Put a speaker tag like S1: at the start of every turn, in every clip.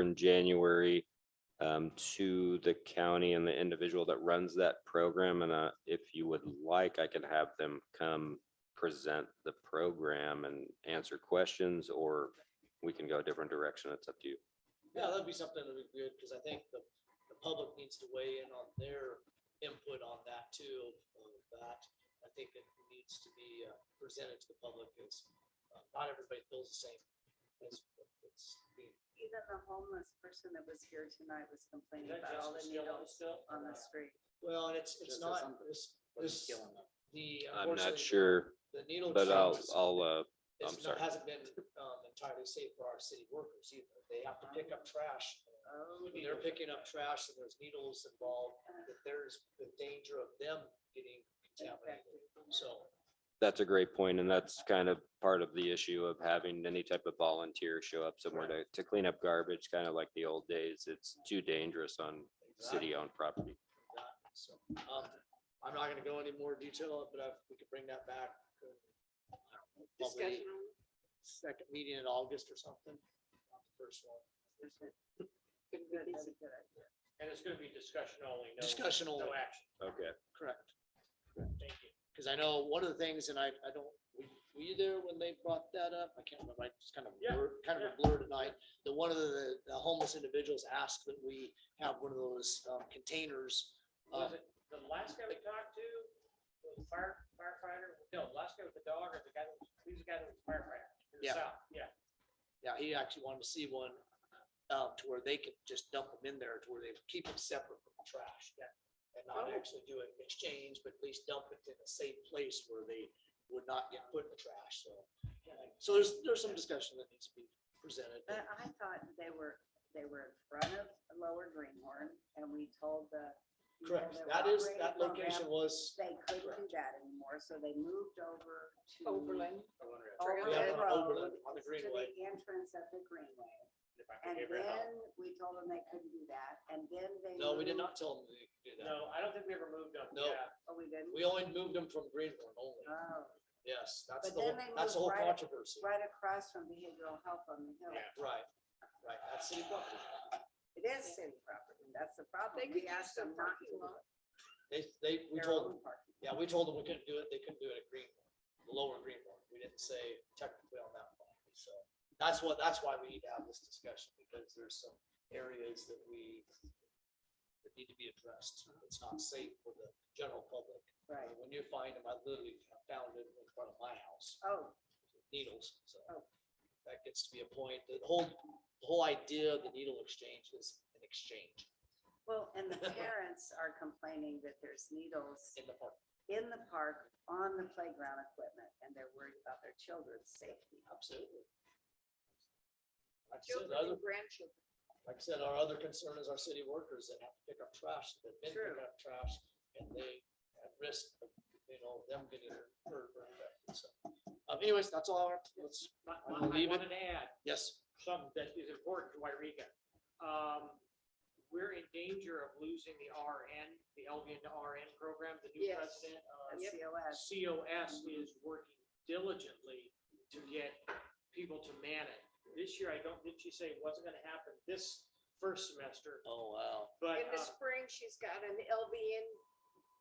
S1: in January um, to the county and the individual that runs that program. And uh, if you would like, I can have them come present the program and answer questions, or we can go a different direction. It's up to you.
S2: Yeah, that'd be something that'd be good, because I think the, the public needs to weigh in on their input on that too, of that. I think it needs to be uh, presented to the public, because not everybody feels the same. as what it's being-
S3: Even the homeless person that was here tonight was complaining about all the needles on the street.
S2: Well, and it's,
S4: Just
S2: it's not,
S4: something-
S2: this,
S4: It's
S2: this,
S4: killing them.
S2: the.
S1: I'm not
S2: unfortunately,
S1: sure,
S2: The needle.
S1: but I'll,
S2: exchange is-
S1: I'll, uh,
S2: is
S1: I'm
S2: not-
S1: sorry.
S2: Hasn't been um, entirely safe for our city workers either. They have to pick up trash.
S3: Oh,
S2: When they're picking up trash and there's needles involved, that there's the danger of them getting contaminated. So,
S1: That's a great point, and that's kind of part of the issue of having any type of volunteer show up somewhere to, to clean up garbage, kind of like the old days. It's too dangerous on city-owned property.
S2: that- so, um, I'm not gonna go any more detail, but I- we could bring that back. uh, probably Second meeting in August or something. not the First one.
S5: And it's gonna be discussion only, no,
S2: Discussion only.
S5: no action.
S1: Okay.
S2: Correct.
S5: Thank you.
S2: Because I know one of the things, and I, I don't, were were you there when they brought that up? I can't remember, I just kind of,
S5: Yeah,
S2: blur- kind of a
S5: yeah.
S2: blur tonight. That one of the the homeless individuals asked that we have one of those um, containers. uh,
S5: Was it the last guy we talked to, the fire firefighter, no, the last guy with the dog or the guy, that was- he was the guy that was firefighter? in the
S2: Yeah.
S5: south, Yeah.
S2: Yeah, he actually wanted to see one uh, to where they could just dump them in there, to where they keep them separate from the trash. Yeah. And not
S3: Oh.
S2: actually do an exchange, but at least dump it in a safe place where they would not get put in the trash, so. So there's, there's some discussion that needs to be presented.
S3: But I thought they were, they were in front of Lower Greenhorn and we told the. people
S2: Correct,
S3: were
S2: that is,
S3: operating
S2: that
S3: program,
S2: location was,
S3: They couldn't do
S2: Correct.
S3: that anymore, so they moved over to.
S6: Overland.
S3: Over
S2: Yeah,
S3: the
S2: on Overland,
S3: road,
S2: on the
S3: to the
S2: Greenway.
S3: entrance of the Greenway.
S5: If I
S3: And
S5: could ever help.
S3: then we told them they couldn't do that, and then they.
S2: no, we did
S3: moved-
S2: not tell them to do that.
S5: No, I don't think we ever moved up.
S2: No.
S5: Yeah.
S3: Oh, we didn't?
S2: We only moved them from Greenhorn only.
S3: Oh,
S2: Yes, that's
S3: But
S2: the, whole
S3: then they
S2: that's the whole
S3: moved right-
S2: controversy.
S3: right across from behavioral health on the hill.
S5: Yeah.
S2: Right, right, that's city property.
S3: It is city property, that's the problem.
S6: They
S3: We
S6: could
S3: asked
S6: use the
S3: them not to.
S6: parking lot.
S2: They, they, we
S3: Their
S2: told them.
S3: own parking.
S2: Yeah, we told them we couldn't do it, they couldn't do it at Greenmore, the lower Greenmore, we didn't say technically on that property, so. That's what, that's why we need to have this discussion, because there's some areas that we that need to be addressed, it's not safe for the general public. I
S3: Right,
S2: mean, When you find them, I literally found it in front of my house,
S3: oh,
S2: needles, so.
S3: Oh.
S2: That gets to be a point, the whole, the whole idea of the needle exchange is an exchange
S3: well, and the parents are complaining that there's needles
S2: in the park.
S3: in the park on the playground equipment, and they're worried about their children's safety.
S2: Absolutely. Like I said,
S6: Children
S2: other-
S6: and grandchildren.
S2: like I said, our other concern is our city workers that have to pick up trash, that have been
S3: True.
S2: picking up trash, and they at risk of, you know, them getting hurt or infected, so. Um, anyways, that's all, I want. let's,
S5: My- my-
S2: We'll
S5: I
S2: leave it.
S5: wanted to add
S2: yes,
S5: something that is important to Wairega. Um, we're in danger of losing the RN, the LVN to RN program, the new
S6: Yes.
S5: president uh, of
S3: That's COS,
S5: COS is working diligently to get people to man it. This year, I don't, did she say it wasn't gonna happen this first semester,
S2: oh, wow,
S5: but,
S6: In the
S5: uh,
S6: spring, she's got an LVN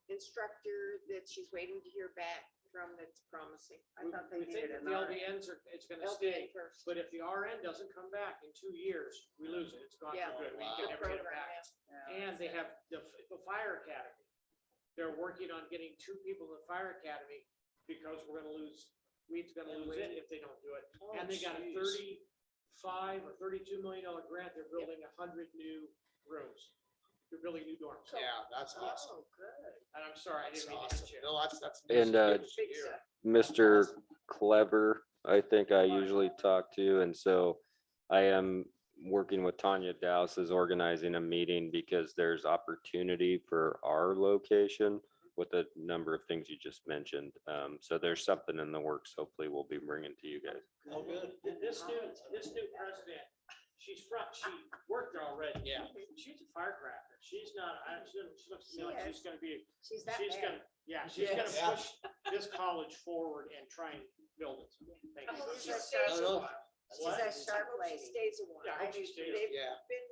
S6: instructor that she's waiting to hear back from that's promising.
S3: I
S5: we
S3: thought they
S5: we think
S3: needed
S5: that
S3: an
S5: the
S3: R.
S5: LVNs are, it's gonna stay.
S6: LVN first.
S5: But if the RN doesn't come back in two years, we lose it. It's gone
S6: Yeah.
S5: for good. We
S2: Wow.
S5: can never get it
S6: Program,
S5: back.
S6: yeah.
S5: And they have the, f- the fire academy. They're working on getting two people in the fire academy because we're gonna lose, weed's gonna
S2: And
S5: lose
S2: weed.
S5: it if they don't do it. And they got a
S2: Oh, jeez.
S5: thirty-five or thirty-two million dollar grant. They're building a hundred new rooms. They're building new dorms.
S2: yeah, that's awesome.
S3: Oh, good.
S5: And I'm sorry, I
S2: That's
S5: didn't mean to
S2: awesome.
S5: hit you.
S2: No, that's, that's.
S1: And, uh,
S2: that's good
S6: Big
S2: to hear.
S6: stuff.
S1: Mr. Clever, I think I
S5: Right.
S1: usually talk to, and so I am working with Tanya Dowse is organizing a meeting because there's opportunity for our location with a number of things you just mentioned. Um, so there's something in the works. Hopefully we'll be bringing to you guys.
S2: Oh, good,
S5: Th- This new, this new president, she's front, she worked already.
S2: Yeah.
S5: She's a firecracker. She's not, I, she doesn't- she looks to me like she's gonna be a
S3: She's that
S5: She's
S3: bad.
S5: gonna, yeah, she's gonna
S2: Yes.
S5: push this college forward and try and build it. Thank you.
S6: Oh,
S3: She's
S6: she's
S3: like-
S2: No,
S6: got-
S2: no,
S7: She's a sharp
S6: I hope she
S7: lady.
S6: stays a while.
S3: Yeah, I hope she
S6: mean,
S3: stays.
S6: They've
S2: Yeah.
S6: been